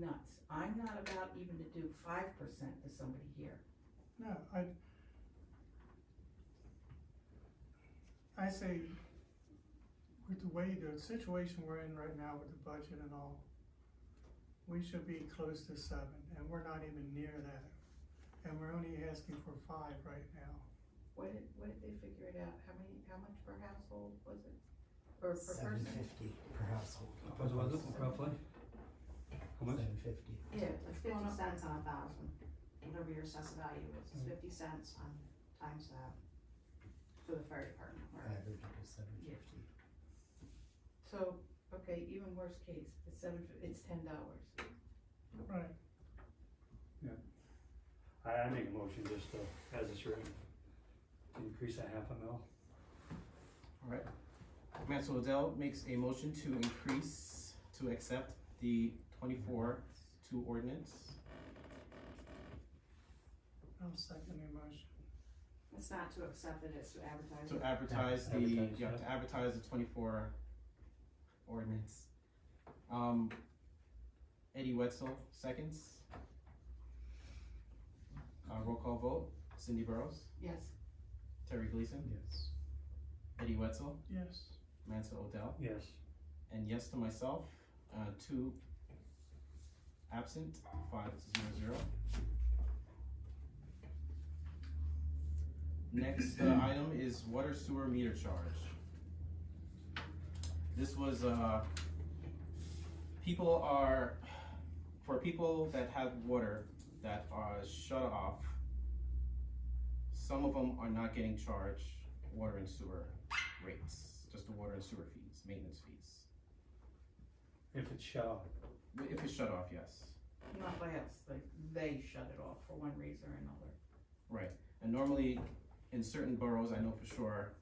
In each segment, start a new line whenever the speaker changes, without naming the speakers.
nuts. I'm not about even to do five percent to somebody here.
No, I. I say, with the way the situation we're in right now with the budget and all, we should be close to seven, and we're not even near that. And we're only asking for five right now.
What did, what did they figure it out? How many, how much per household was it? Or per
Seven
person?
fifty per household.
That's what I was looking for, roughly. How much?
Seven fifty.
Yeah,
It's
what's going
fifty
on?
cents on a thousand, whatever your assessed value is,
Mm.
it's fifty cents on, times that for the fire department. or-
Average was seven fifty.
So, okay, even worst case, it's seven, fif- it's ten dollars.
Right,
I, I make a motion just to, as it's written, to increase that half a mil.
Alright. Maxwell Dell makes a motion to increase, to accept the twenty-four two ordinance.
I'll second the motion.
It's not to accept it, it's to advertise
To
it.
advertise the,
Advertise,
yeah, to advertise the twenty-four ordinance. Um, Eddie Wetzel, seconds. Uh, roll call vote, Cindy Burrows,
Yes,
Terry Gleason,
Yes.
Eddie Wetzel,
Yes,
Mansell Odell.
Yes.
And yes to myself, uh, two absent, five zero zero. Next uh, item is water sewer meter charge. This was, uh, people are, for people that have water that are shut off, some of them are not getting charged water and sewer rates, just the water and sewer fees, maintenance fees.
If it's shut off.
If it's shut off, yes.
not by us, like, they shut it off for one reason or another.
And normally, in certain boroughs, I know for sure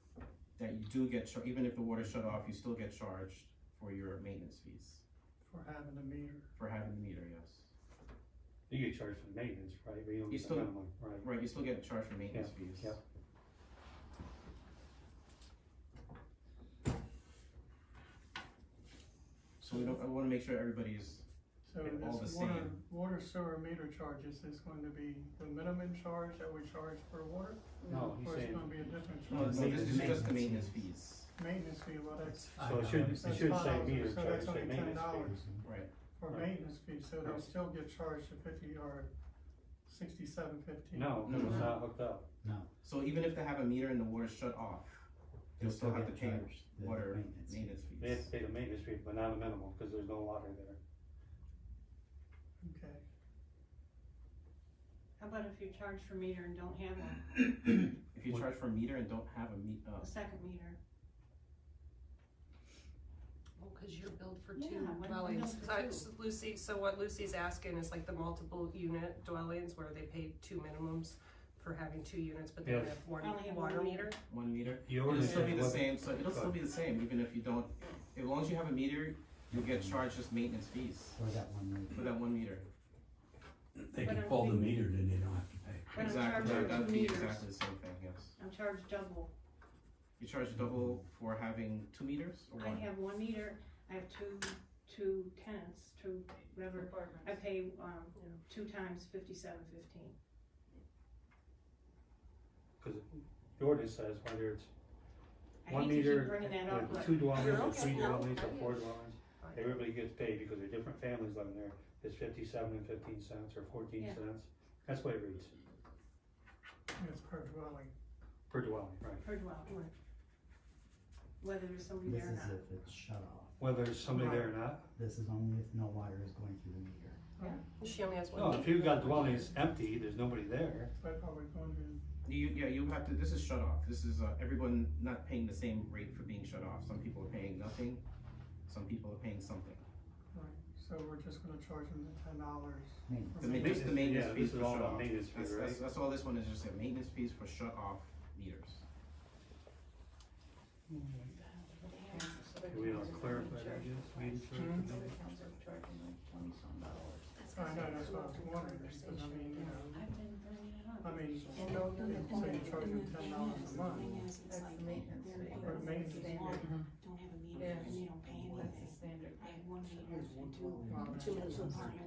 that you do get, char- even if the water's shut off, you still get charged for your maintenance fees
for having a meter.
for having the meter, yes.
You get charged for maintenance, right? But you don't
You
get the
still-
minimum, right?
Right, you still get charged for maintenance fees.
yeah.
So we don't, I wanna make sure everybody is,
So
And all
this
the
water,
same.
water sewer meter charges is going to be the minimum charge that we charge for water?
No, he's
Or it's
saying,
gonna be a different
no,
charge?
no, this is just
Maintenance
the maintenance
fees.
fees,
Maintenance fee, well, that's
so it should, it
That's
should say
fine,
meter
so
charge,
that's
say
only
maintenance
$10.
fees.
right,
for
Right.
maintenance fee, so
No.
they still get charged the fifty or sixty-seven fifteen.
No, because
Mm-hmm.
it's
No.
not hooked up.
No.
so even if they have a meter and the water's shut off,
they
they'll still have to
get
pay
charged the
water
maintenance.
maintenance fees.
They have to pay the maintenance fee, but not a minimum, because there's no water there.
Okay,
How about if you charge for meter and don't have a,
If you
What-
charge for a meter and don't have a me, uh,
a second meter?
Well, cause you're billed for
Yeah,
two
why don't we
dwellings,
bill for
So I-
two?
so Lucy, so what Lucy's asking is like the multiple unit dwellings where they pay two minimums for having two units, but they
Yeah.
only have
Only have one
one water
meter.
meter?
one meter,
You
it'll
already
still be
said
the
what-
same, so it'll still be the same, even if you don't, as long as you have a meter, you'll get charged just maintenance fees
For that one meter.
for that one meter.
They
But
can
I'm
pull the
thinking-
meter, then they don't have to pay.
But I'm
Exactly,
charging
that- that'd
two
be
meters.
exactly the same thing, yes.
I'm charged double.
You charge double for having two meters or
I
one?
have one meter, I have two, two tenants, two, whatever. I
Apartments.
pay, um, two times fifty-seven fifteen.
Because the ordinance says whether it's
I
one
hate to keep
meter,
bringing that
or
up, but
two dwellings, or
okay,
three
no,
dwellings, or
I
four
get
dwellings, everybody gets paid because they're different families living there. It's fifty-seven and fifteen cents or fourteen
Yeah.
cents. That's what it reads,
it's per dwelling.
per dwelling, right?
per dwelling, right. Whether there's somebody
This
there or
is
not.
if it's shut off.
Whether there's somebody there or not.
This is only if no water is going through the meter.
She only has one.
No,
meter.
if you've got dwellings empty, there's nobody there.
But are we going to,
You, yeah, you have to, this is shut off, this is, uh, everyone not paying the same rate for being shut off, some people are paying nothing, some people are paying something.
right, so we're just gonna charge them the ten dollars?
Maintenance.
The ma- just the maintenance
Yeah,
fees
this
for
is all
shut
about
off.
maintenance fee,
That's,
right?
that's, that's all this one is, just a maintenance fees for shut off meters.
Yeah, so they
Can we all
charge-
clarify that, yes, means for-
Hmm?
Other towns are charging like twenty some dollars.
I know, that's what I was wondering, because I mean, you know,
I've been bringing it up.
I mean,
And they'll do the
so you
cleaning.
charge them ten dollars a month,
Thing is, it's
That's
like,
the maintenance
they're-
fee.
they're-
or maintenance fee.
don't have
Yeah.
a meter and they don't pay
That's
anything.
the standard.
I have one meter and two,
Well,
two apartments.